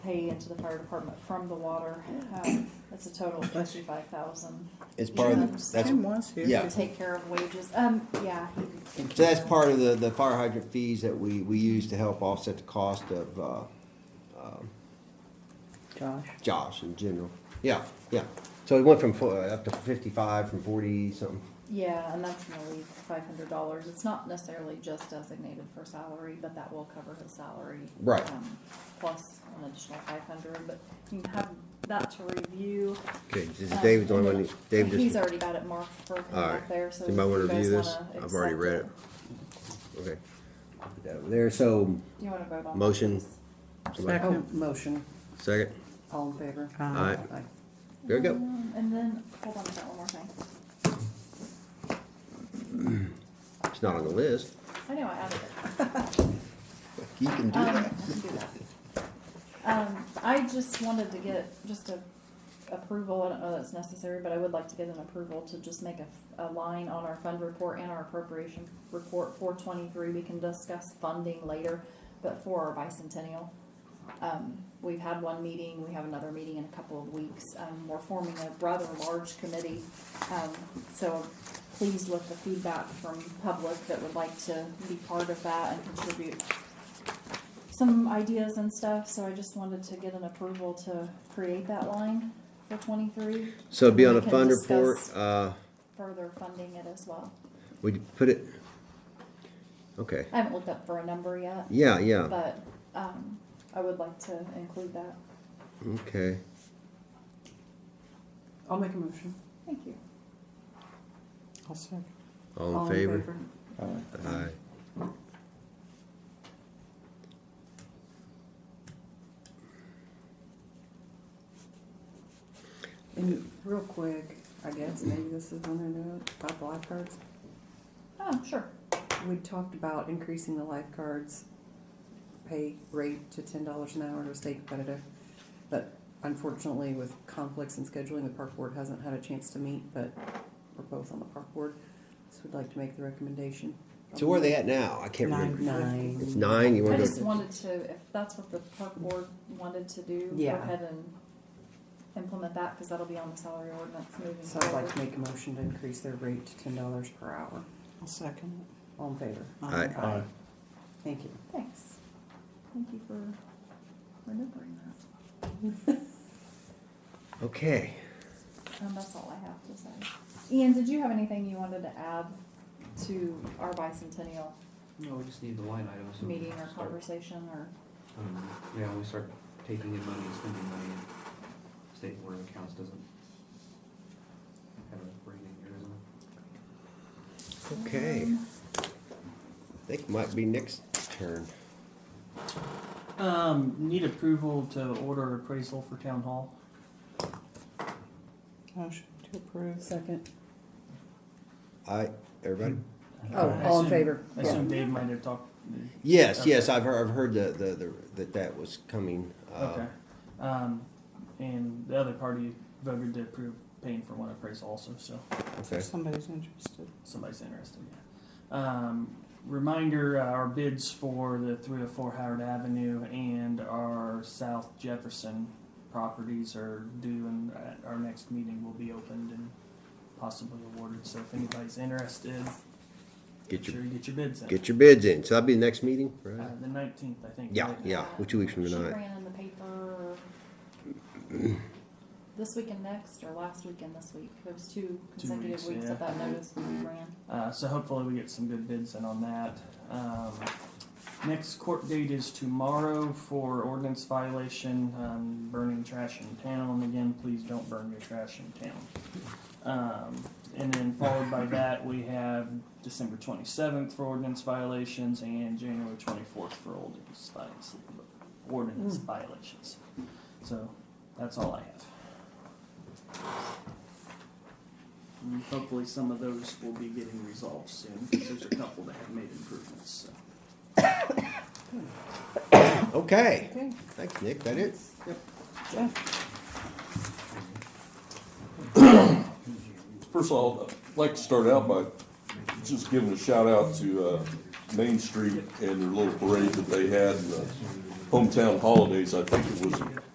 pay into the fire department from the water. Um, That's a total of fifty-five thousand. It's part of, Yeah. the- that's, Tim was here. yeah. To take care of wages, um, yeah, he- so that's part of the, the fire hydrant fees that we, we use to help offset the cost of, uh, Josh. Josh in general. Yeah, yeah. So it went from fo- uh, up to fifty-five, from forty something. yeah, and that's gonna leave five hundred dollars. It's not necessarily just designated for salary, but that will cover his salary. Right. um, Plus an additional five hundred, but you can have that to review. Okay, this is Um, David's the only and one, then that- David just. He's already got it marked for him All up right. there, so. You might if wanna you review guys this. wanna I've already accept read it. Okay. Put that over There, so, Do you wanna vote on? Motion. this? somebody- Second motion, second, all in favor? Aye. there we go. Um, And then, hold on, I got one more thing. It's not on the list. I know, I added it. You can do Um, that. I can do that. Um, I just wanted to get just a approval, I don't know that's necessary, but I would like to get an approval to just make a, a line on our fund report and our appropriation report for twenty-three, we can discuss funding later, but for our bicentennial. Um, we've had one meeting, we have another meeting in a couple of weeks, um, we're forming a rather large committee. Um, so pleased with the feedback from public that would like to be part of that and contribute some ideas and stuff, so I just wanted to get an approval to create that line for twenty-three, So it'd be on we a can fund report, discuss. uh, further funding it as well. would you put it? Okay, I haven't looked up for a number yet, yeah, yeah, but, um, I would like to include that. okay. I'll make a motion. Thank you. I'll second. All in favor? Aye. And real quick, I guess maybe this is when I know it, about the lifeguards. Oh, sure. We talked about increasing the lifeguards' pay rate to ten dollars an hour to stay competitive. But unfortunately, with conflicts and scheduling, the park board hasn't had a chance to meet, but we're both on the park board. So we'd like to make the recommendation. So where are they at now? I can't remember. Nine. It's nine, you I wanna go? just wanted to, if that's what the park board wanted to do, go Yeah. ahead and implement that, cause that'll be on the salary ordinance moving So I'd like to forward. make a motion to increase their rate to ten dollars per hour. I'll second All in favor? Aye. Aye. Thank you. Thanks. Thank you for remembering that. Okay, Um, that's all I have to say. Ian, did you have anything you wanted to add to our bicentennial No, we just need the line items. so we meeting can or start, conversation or, um, Yeah, we start taking in money and spending money, and state board of accounts doesn't have a rating here, doesn't it? okay. Um, I think it might be next turn. it. Um, need approval to order appraisal for town hall. Motion to approve. Second. Aye, everybody? Oh, I all in assume- favor? I assume Dave might have talked. Yes, Okay. yes, I've heard, I've heard the, the, the, that that was coming. uh, Okay. Um, and the other party voted to approve paying for one appraisal also, so Okay, Somebody's interested. somebody's interested, yeah. Um, reminder, uh, our bids for the three oh four Howard Avenue and our South Jefferson properties are due and at our next meeting will be opened and possibly awarded, so if anybody's interested, get sure your, you get your bids in. get your bids in, so that'll be the next meeting, Uh, right? the nineteenth, I think. Yeah, right? yeah, well, two weeks from she tonight. ran in the paper this week and next, or last week and this week. There was two consecutive weeks, weeks yeah. that that notice we ran. Uh, so hopefully we get some good bids in on that. Um, next court date is tomorrow for ordinance violation, um, burning trash in town. Again, please don't burn your trash in town. Um, and then followed by that, we have December twenty-seventh for ordinance violations and January twenty-fourth for ordinance violations. Ordinance violations. So that's all I have. And Hopefully, some of those will be getting resolved soon, because there's a couple that have made improvements, so. Okay, Okay. thanks, Nick, that it? Jeff? First of all, I'd like to start out by just giving a shout out to uh, Main Street and their little parade that they had, and the hometown holidays, I think it was